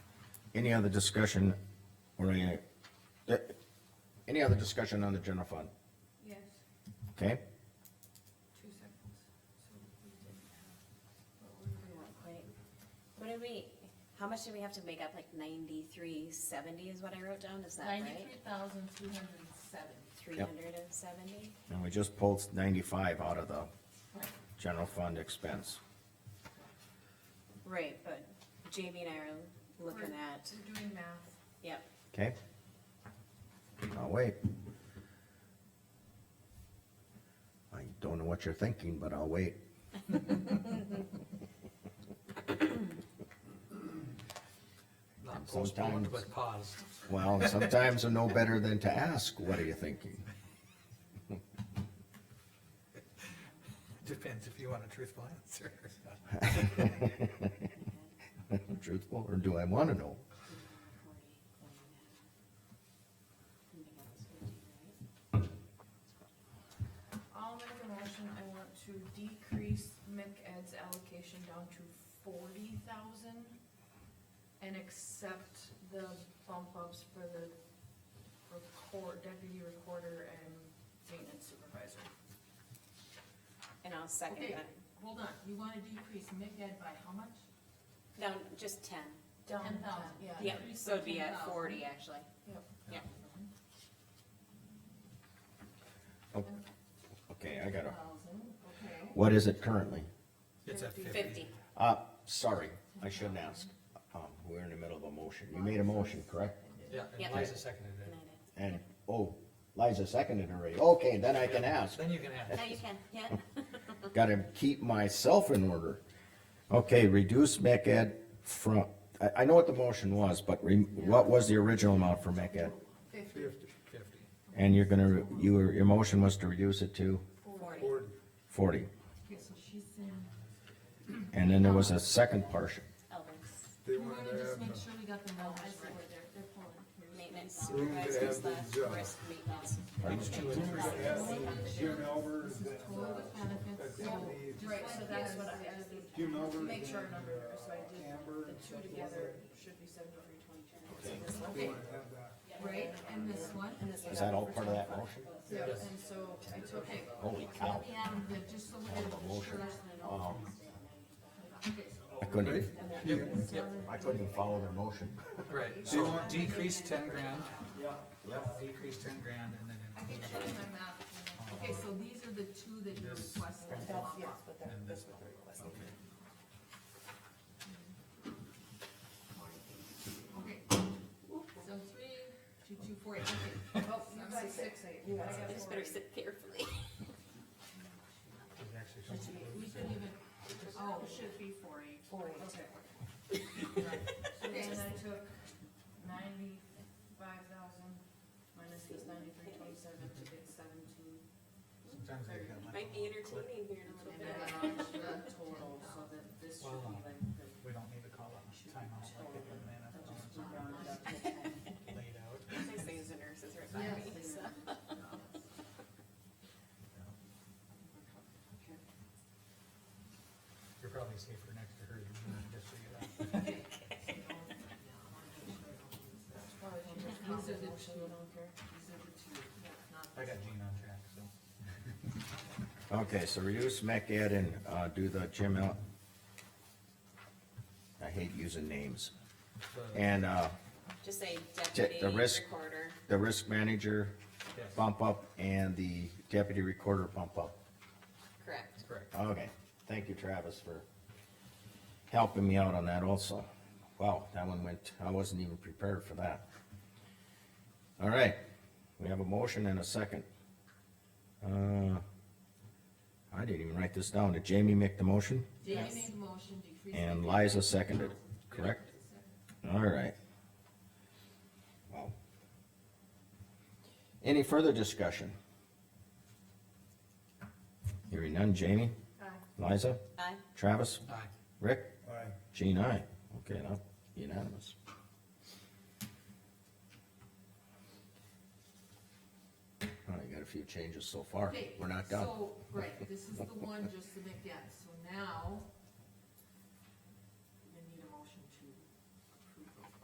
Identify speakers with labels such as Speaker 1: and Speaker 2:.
Speaker 1: Any other discussion or any, eh, any other discussion on the general fund?
Speaker 2: Yes,
Speaker 1: Okay,
Speaker 2: two seconds. So we did have, what were we
Speaker 3: Real quick. What did we, how much did we have to make up, like ninety-three seventy is what I wrote down, is that right?
Speaker 2: Ninety-three thousand, two hundred and seven.
Speaker 3: Three hundred and seventy?
Speaker 1: and we just pulled ninety-five out of the
Speaker 2: Right.
Speaker 1: general fund expense.
Speaker 3: Right, but Jamie and I are looking at,
Speaker 2: We're doing math.
Speaker 3: yep,
Speaker 1: Okay? I'll wait. I don't know what you're thinking, but I'll wait.
Speaker 4: Not
Speaker 1: And sometimes-
Speaker 4: postponed, but paused.
Speaker 1: Well, and sometimes I'm no better than to ask, what are you thinking?
Speaker 4: Depends if you want a truthful answer.
Speaker 1: Truthful, or do I wanna know?
Speaker 3: forty, going Something else we do, right?
Speaker 2: I'll make a motion, I want to decrease McEd's allocation down to forty thousand and accept the bump ups for the record, deputy recorder and maintenance supervisor.
Speaker 3: And I'll second
Speaker 2: Okay.
Speaker 3: that,
Speaker 5: Hold on, you wanna decrease MCED by how much?
Speaker 3: down, just ten,
Speaker 2: Down
Speaker 5: Ten
Speaker 2: to
Speaker 5: thousand, yeah.
Speaker 3: yeah,
Speaker 5: increase
Speaker 3: so it'd be
Speaker 5: by
Speaker 3: at
Speaker 5: 10,000.
Speaker 3: forty, actually.
Speaker 2: Yep.
Speaker 3: Yep.
Speaker 1: Okay, I gotta,
Speaker 5: Thousand, okay.
Speaker 1: what is it currently?
Speaker 4: It's at fifty.
Speaker 3: Fifty,
Speaker 1: Uh, sorry, I shouldn't ask. Um, we're in the middle of a motion. You made a motion, correct?
Speaker 4: Yeah,
Speaker 3: Yep.
Speaker 4: and Liza seconded
Speaker 3: and I
Speaker 4: it.
Speaker 3: did.
Speaker 1: And, oh, Liza seconded already. Okay, then I can ask.
Speaker 4: Then you can ask.
Speaker 3: No, you can, yeah,
Speaker 1: Gotta keep myself in order. Okay, reduce MECAD from, I, I know what the motion was, but re, what was the original amount for MECAD?
Speaker 2: Fifty,
Speaker 4: Fifty. Fifty.
Speaker 1: And you're gonna, re- you, were- your motion was to reduce it to
Speaker 3: forty.
Speaker 1: forty.
Speaker 5: Okay, so she's saying,
Speaker 1: And then there was a second portion.
Speaker 3: Elders,
Speaker 6: They
Speaker 5: we
Speaker 6: wanted
Speaker 5: wanna
Speaker 6: to
Speaker 5: just
Speaker 6: have,
Speaker 5: make
Speaker 6: the-
Speaker 5: sure we got the
Speaker 2: I
Speaker 5: numbers
Speaker 2: see
Speaker 5: right.
Speaker 2: what they're, they're pulling.
Speaker 3: maintenance
Speaker 6: We need to
Speaker 3: supervisor
Speaker 6: have
Speaker 3: slash
Speaker 6: these, uh,
Speaker 3: risk maintenance.
Speaker 4: Page two and three.
Speaker 6: Jim Albers,
Speaker 5: Total benefits,
Speaker 6: Yeah.
Speaker 5: so,
Speaker 2: Right, so that's what I, I
Speaker 6: Jim Albers.
Speaker 2: to make sure our
Speaker 6: and,
Speaker 2: number,
Speaker 6: uh,
Speaker 2: so I did
Speaker 6: Amber.
Speaker 2: the
Speaker 6: and
Speaker 2: two
Speaker 6: stuff like
Speaker 2: together,
Speaker 6: that.
Speaker 2: should be seventy-three twenty-two.
Speaker 6: They wanna have that.
Speaker 5: right, and this one?
Speaker 1: Is that all part of that motion?
Speaker 2: Yeah, and so I took it.
Speaker 1: Holy cow,
Speaker 5: And the, just so we're sure.
Speaker 1: wow,
Speaker 5: Okay,
Speaker 1: I couldn't, even-
Speaker 4: Yep, yep,
Speaker 1: I couldn't even follow their motion.
Speaker 4: right. So decrease ten grand. Yeah. Decrease ten grand and then
Speaker 5: I can
Speaker 4: increase
Speaker 5: show you my map. Okay, so these are the two that you
Speaker 4: This-
Speaker 5: requested.
Speaker 4: and this one. Okay.
Speaker 5: Okay. So three, two, two, four, eight, okay.
Speaker 2: Oh, you got six eight. I got
Speaker 3: I just
Speaker 2: four
Speaker 3: better
Speaker 2: eight.
Speaker 3: sit carefully.
Speaker 4: There's actually something.
Speaker 5: We should even, oh,
Speaker 2: It should be four eight. Okay. And
Speaker 5: okay,
Speaker 2: then I took ninety-five thousand minus this ninety-three twenty-seven to get seventeen.
Speaker 4: Sometimes they got
Speaker 3: Might
Speaker 4: like,
Speaker 3: be entertaining here in a little
Speaker 2: And
Speaker 3: bit.
Speaker 2: then I added the total, so that this should be like the
Speaker 4: oh, we don't need to call a timeout like they do in the
Speaker 2: round up.
Speaker 4: NFL laid out.
Speaker 3: My sons and nurses right by me,
Speaker 2: Yes.
Speaker 3: so.
Speaker 4: You're probably safer next to her than me, just so you know.
Speaker 5: These are the two.
Speaker 4: I got Gene on track, so.
Speaker 1: Okay, so reduce MECAD and, uh, do the Jim Al. I hate using names.
Speaker 4: So,
Speaker 1: And, uh,
Speaker 3: Just say
Speaker 1: the
Speaker 3: deputy
Speaker 1: risk-
Speaker 3: recorder,
Speaker 1: the risk manager
Speaker 4: yes,
Speaker 1: bump up and the deputy recorder bump up.
Speaker 3: correct.
Speaker 4: Correct.
Speaker 1: Okay, thank you Travis for helping me out on that also. Wow, that one went, I wasn't even prepared for that. All right, we have a motion and a second. Uh, I didn't even write this down. Did Jamie make the motion?
Speaker 5: Jamie made the motion, decrease.
Speaker 1: And Liza seconded, correct? All right. Wow. Any further discussion? Hearing none, Jamie? Liza?
Speaker 3: Aye.
Speaker 1: Travis?
Speaker 4: Aye.
Speaker 1: Rick?
Speaker 6: Aye.
Speaker 1: Gene, aye. Okay, now unanimous. All right, got a few changes so far.
Speaker 5: Okay,
Speaker 1: We're not done.
Speaker 5: So, right, this is the one just to make that, so now,